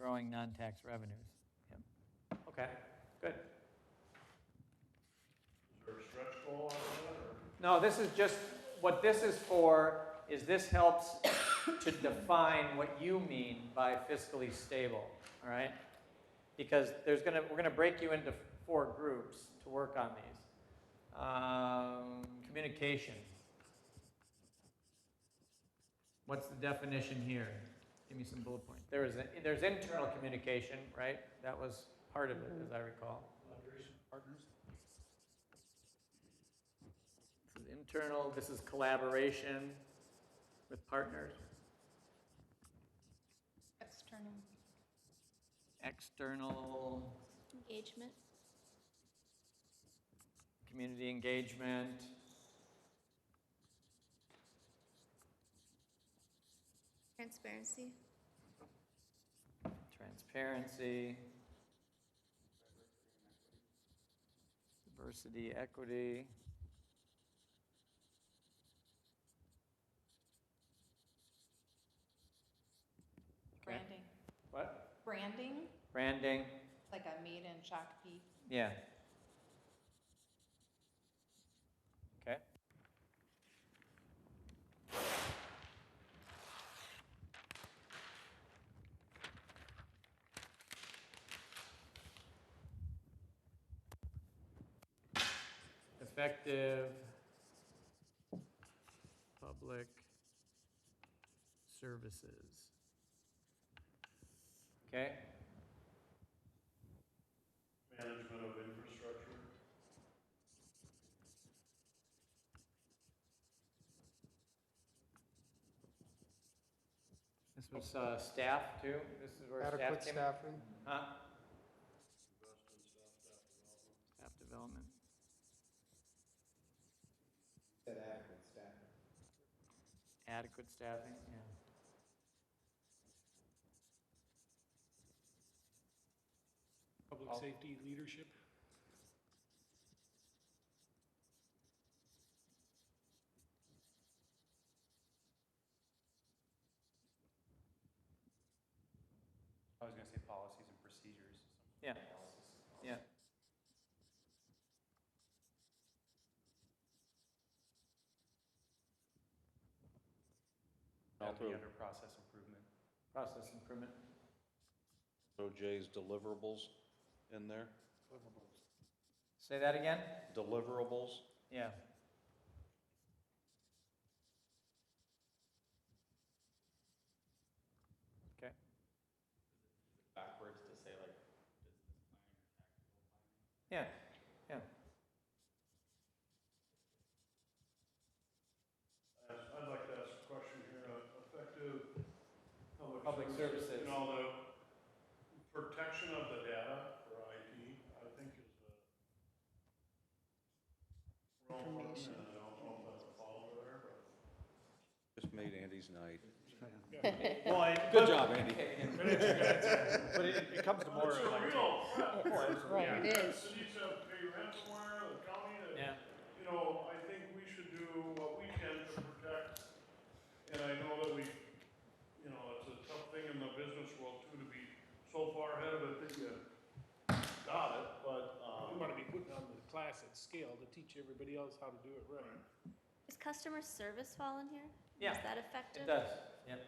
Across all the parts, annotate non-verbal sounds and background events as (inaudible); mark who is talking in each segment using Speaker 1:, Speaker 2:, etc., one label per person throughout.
Speaker 1: growing non-tax revenues. Yep.
Speaker 2: Okay, good.
Speaker 3: Is there a stretch goal on that, or?
Speaker 2: No, this is just, what this is for is this helps to define what you mean by fiscally stable, all right? Because there's gonna, we're gonna break you into four groups to work on these. Um, communication. What's the definition here? Give me some bullet points. There is, a- there's internal communication, right? That was part of it, as I recall.
Speaker 3: Partners?
Speaker 2: This is internal, this is collaboration with partners,
Speaker 4: External
Speaker 2: external
Speaker 4: engagement.
Speaker 2: community engagement.
Speaker 4: Transparency.
Speaker 2: transparency, diversity, equity. Okay.
Speaker 5: Branding.
Speaker 2: What?
Speaker 5: Branding,
Speaker 2: Branding,
Speaker 5: like a made in Shakopee.
Speaker 2: yeah. Okay. Effective public services. Okay?
Speaker 3: Management of infrastructure?
Speaker 2: This was uh, staff too? This is where staff
Speaker 6: Adequate
Speaker 2: came?
Speaker 6: staffing,
Speaker 2: Huh?
Speaker 3: Investment, staff,
Speaker 2: Staff
Speaker 3: staff development?
Speaker 2: development.
Speaker 7: Said adequate staffing.
Speaker 2: Adequate staffing, yeah.
Speaker 8: Public
Speaker 2: I'll-
Speaker 8: safety leadership?
Speaker 9: I was gonna say policies and procedures.
Speaker 2: Yeah. Yeah.
Speaker 9: That'd be
Speaker 3: Also-
Speaker 9: under process improvement.
Speaker 2: Process improvement.
Speaker 3: So Jay's deliverables in there?
Speaker 2: Say that again?
Speaker 3: Deliverables?
Speaker 2: Yeah. Okay.
Speaker 7: Backwards to say like
Speaker 2: Yeah, yeah.
Speaker 3: I'd I'd like to ask a question here, Uh, effective public.
Speaker 2: Public services.
Speaker 3: You know, the protection of the data for IT, I think is a. wrong one,
Speaker 4: Information.
Speaker 3: and I don't know if that's a follow there,
Speaker 4: (laughs)
Speaker 10: Just made Andy's night.
Speaker 3: but. Well, I-
Speaker 10: Good job, Andy.
Speaker 9: But it, it comes to more
Speaker 3: It's a
Speaker 9: like,
Speaker 3: real threat.
Speaker 4: Right, it
Speaker 3: The
Speaker 4: is.
Speaker 3: cities have paid ransomware, the county, the
Speaker 2: Yeah.
Speaker 3: you know, I think we should do what we can to protect, and I know that we, you know, it's a tough thing in the business world too, to be so far ahead of it that you got it, but,
Speaker 8: We
Speaker 3: um,
Speaker 8: want to be putting on the class at scale to teach everybody else how to do it right.
Speaker 4: Is customer service fall in here?
Speaker 2: Yeah,
Speaker 4: Is that
Speaker 2: It
Speaker 4: effective?
Speaker 2: does, yep.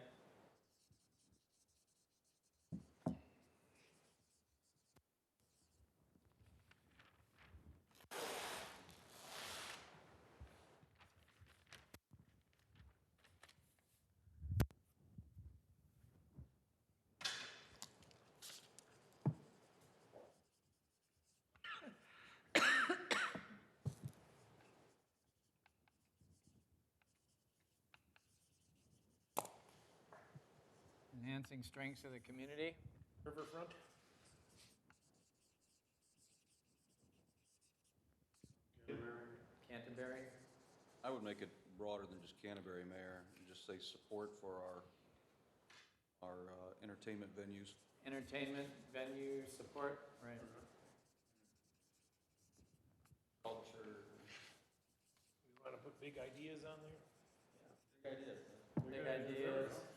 Speaker 2: Enhancing strengths of the community.
Speaker 8: Riverfront?
Speaker 2: Canterbury.
Speaker 10: I would make it broader than just Canterbury, Mayor, and just say support for our, our uh, entertainment venues.
Speaker 2: Entertainment, venue, support, right.
Speaker 7: culture.
Speaker 8: We want to put big ideas on there?
Speaker 7: Big ideas.
Speaker 2: Big ideas,